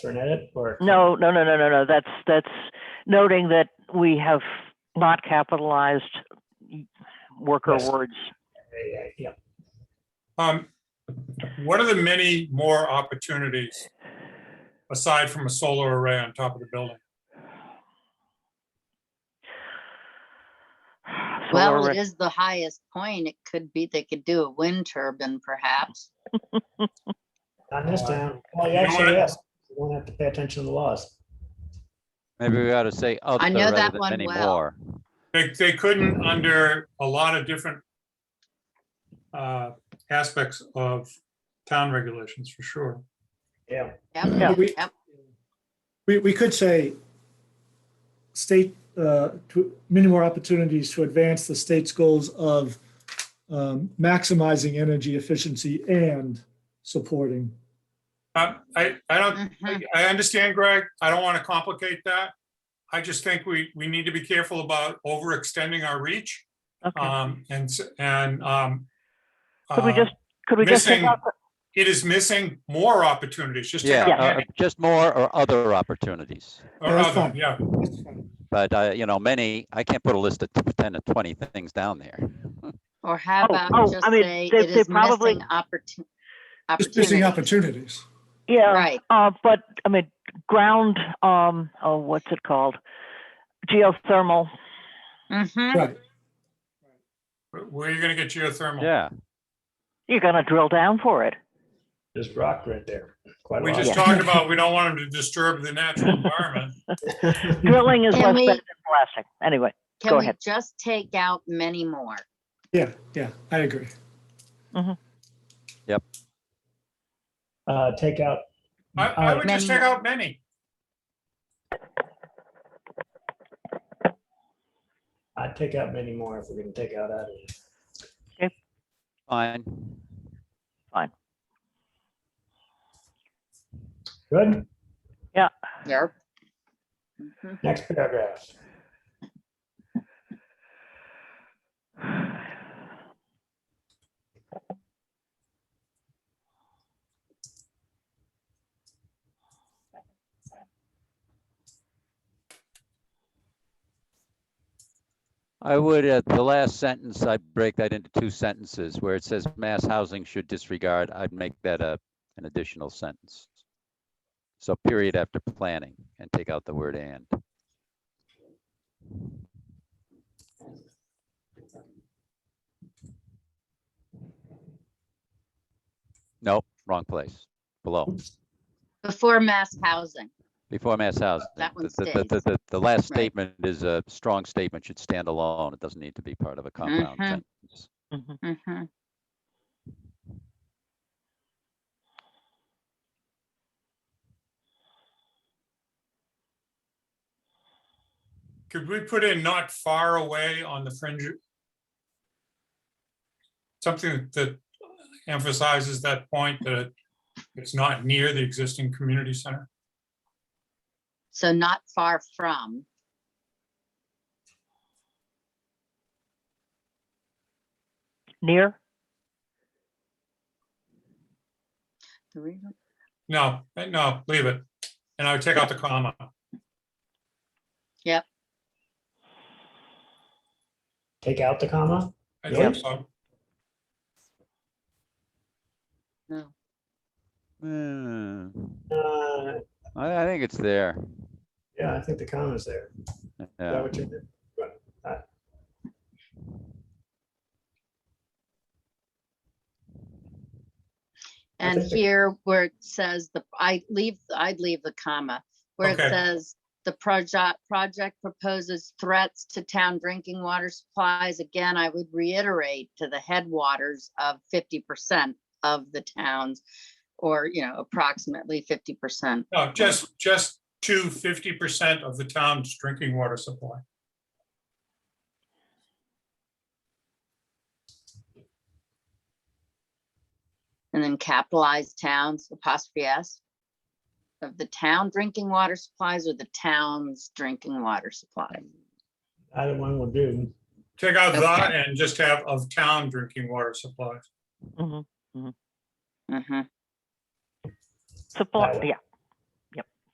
for an edit or? No, no, no, no, no, no. That's, that's noting that we have not capitalized worker Yes. words. Yeah, Yeah, Um, what are the many more opportunities aside from a solar array on top of the building? Solar Well, array- it is the highest point. It could be, they could do a wind turbine perhaps. not in this town. Well, You know actually, what? yes, you don't have to pay attention to the laws. Maybe we ought to say of I the know rather that than one any well. more. They, they couldn't under a lot of different uh, aspects of town regulations, for sure. Yeah. Yep, Yeah. We, yep. we, we could say state, uh, to many more opportunities to advance the state's goals of um, maximizing energy efficiency and supporting. Uh, I, I don't, Mhm. I understand, Greg. I don't want to complicate that. I just think we, we need to be careful about overextending our reach. Okay. um, And, s- and. um, Could we uh, just, could we just take missing- out, the- It is missing more opportunities, just. take Yeah, out uh, many just more or other opportunities. Or That's other, fine. yeah. But, uh, you know, many, I can't put a list of 10 to 20 things down there. Or how Oh, oh, about just I mean, say they- it they is probably- missing opportu- Just missing opportunity. opportunities. yeah, Right, uh, but, I mean, ground, um, oh, what's it called? Geothermal, hmm Right. Where are you gonna get geothermal? Yeah, you're gonna drill down for it. There's rock right there. Quite a We lot. just talked about, we don't want them to disturb the natural environment. Drilling is less bad Can we- than blasting, anyway. Go Can we ahead. just take out many more? Yeah, yeah, I agree. Uh, take out, I, I would just Many. take out many. I'd take out many more if we're gonna take out that. fine. Good, Yep. Mhm. next paragraph. I would, at the last sentence, I'd break that into two sentences where it says mass housing should disregard. I'd make that a, an additional sentence. So period after planning and take out the word and. Nope, wrong place, below, Before mass housing. before mass housing. That one The- the- the- stays. The, the last Right. statement is a strong statement, should stand alone. It doesn't need to be part of a compound Mhm. sentence. Mhm. Mhm. Could we put in not far away on the fringe? Something that emphasizes that point that it's not near the existing community center. So not far from. Near, No, eh, no, leave it. And I would take out the comma. Take out the comma? I Yeah. think so. No. Hmm. Uh, I, I think it's there. yeah, I think the comma's there. Is that Yeah, what you did? I And think the- here where it says the, I leave, I'd leave the comma, where it Okay. says the project, project proposes threats to town drinking water supplies. Again, I would reiterate to the headwaters of fifty percent of the towns or, you know, approximately fifty percent. No, just, just to fifty percent of the town's drinking water supply. And then capitalize towns, apostrophe S. Of the town drinking water supplies or the town's drinking water supply. Either one will do. Take out that Okay. and just have of town drinking water supplies. Mhm. Mhm. supply, Right. yeah,